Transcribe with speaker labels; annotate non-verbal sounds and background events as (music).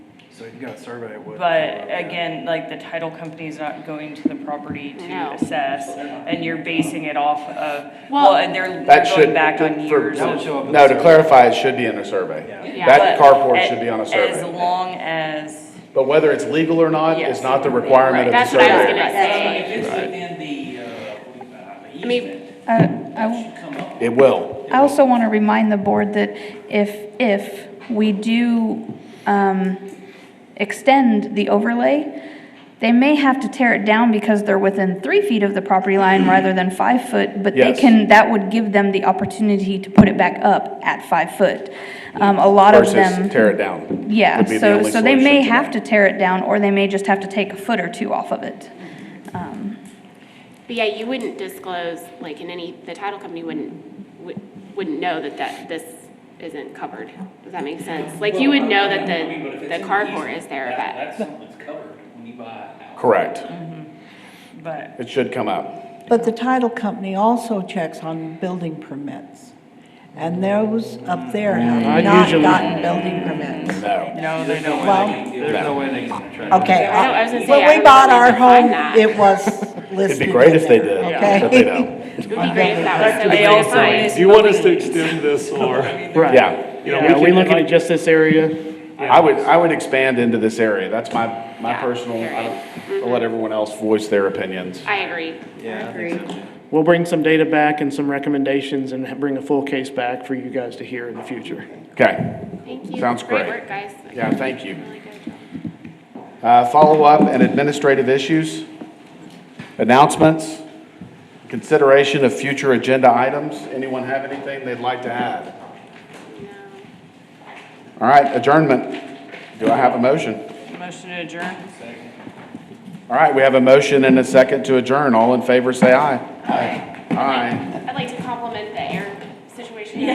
Speaker 1: so you gotta survey it with.
Speaker 2: But again, like the title company's not going to the property to
Speaker 3: No.
Speaker 2: assess, and you're basing it off of,
Speaker 3: Well-
Speaker 2: well, and they're they're
Speaker 4: That
Speaker 2: going
Speaker 4: should,
Speaker 2: back on
Speaker 4: for,
Speaker 2: years
Speaker 1: That would
Speaker 2: of.
Speaker 1: show up in
Speaker 4: no,
Speaker 1: the survey.
Speaker 4: to clarify, it should be in a survey.
Speaker 3: Yeah.
Speaker 4: That
Speaker 2: But
Speaker 4: carport should be on a
Speaker 2: as- As
Speaker 4: survey.
Speaker 2: long as,
Speaker 4: But whether it's legal or not is
Speaker 2: Yes.
Speaker 4: not the requirement of the
Speaker 3: That's what I was
Speaker 4: survey.
Speaker 3: gonna say.
Speaker 5: If it's within the, uh,
Speaker 3: I mean-
Speaker 5: easement,
Speaker 6: I-
Speaker 5: that
Speaker 6: I
Speaker 5: should come up.
Speaker 4: It will.
Speaker 6: I also want to remind the board that if, if we do um, extend the overlay, they may have to tear it down because they're within three feet of the property line rather than five foot, but they
Speaker 4: Yes.
Speaker 6: can, that would give them the opportunity to put it back up at five foot. Um, A lot of them.
Speaker 4: Versus tear it down.
Speaker 6: Yeah,
Speaker 4: would be the
Speaker 6: so,
Speaker 4: only
Speaker 6: so they may
Speaker 4: solution to
Speaker 6: have
Speaker 4: that.
Speaker 6: to tear it down, or they may just have to take a foot or two off of it.
Speaker 3: But yeah, you wouldn't disclose, like, in any, the title company wouldn't, would- wouldn't know that that, this isn't covered. Does that make sense? Like, you would know that
Speaker 5: I mean, but if
Speaker 3: the,
Speaker 5: it's
Speaker 3: the
Speaker 5: in
Speaker 3: carport
Speaker 5: easement,
Speaker 3: is there,
Speaker 5: that-
Speaker 3: but.
Speaker 5: That's something that's covered when you buy a house.
Speaker 4: Correct.
Speaker 2: but,
Speaker 4: It should come up.
Speaker 7: But the title company also checks on building permits. And those up there
Speaker 4: Mm. I
Speaker 7: have not
Speaker 4: usually-
Speaker 7: gotten building permits.
Speaker 4: No.
Speaker 2: no, they don't.
Speaker 7: Well,
Speaker 1: There's no way they can track.
Speaker 7: okay. uh,
Speaker 3: I know, I was gonna say, I
Speaker 7: When we
Speaker 3: don't
Speaker 7: bought
Speaker 3: know if
Speaker 7: our
Speaker 3: we can find
Speaker 7: home,
Speaker 3: that.
Speaker 7: it was
Speaker 4: (laughs) It'd
Speaker 7: listed
Speaker 4: be great if they
Speaker 7: in there,
Speaker 4: did,
Speaker 7: Okay.
Speaker 4: but they
Speaker 7: (laughs)
Speaker 4: don't.
Speaker 3: It would be great if that was so
Speaker 2: They
Speaker 3: easy to
Speaker 2: also
Speaker 3: find.
Speaker 2: is
Speaker 8: Do you want us to
Speaker 2: building-
Speaker 8: extend this or?
Speaker 4: Yeah.
Speaker 8: You know,
Speaker 9: Yeah, are
Speaker 8: we
Speaker 9: we
Speaker 8: can,
Speaker 9: looking
Speaker 8: like-
Speaker 9: at just this area?
Speaker 4: I would, I would expand into this area. That's my, my
Speaker 3: Yeah,
Speaker 4: personal, I
Speaker 3: period.
Speaker 4: don't, I'll let everyone else voice their opinions.
Speaker 3: I agree.
Speaker 1: Yeah, I think so.
Speaker 9: We'll bring some data back and some recommendations and bring a full case back for you guys to hear in the future.
Speaker 4: Okay.
Speaker 3: Thank you.
Speaker 4: Sounds great.
Speaker 3: Great work, guys.
Speaker 4: Yeah, thank you.
Speaker 3: Really good job.
Speaker 4: Uh, Follow-up and administrative issues, announcements, consideration of future agenda items. Anyone have anything they'd like to add? All right, adjournment. Do I have a motion?
Speaker 2: Motion to adjourn?
Speaker 4: All right, we have a motion and a second to adjourn. All in favor, say aye. Aye. Aye.
Speaker 3: I'd like to compliment the air situation.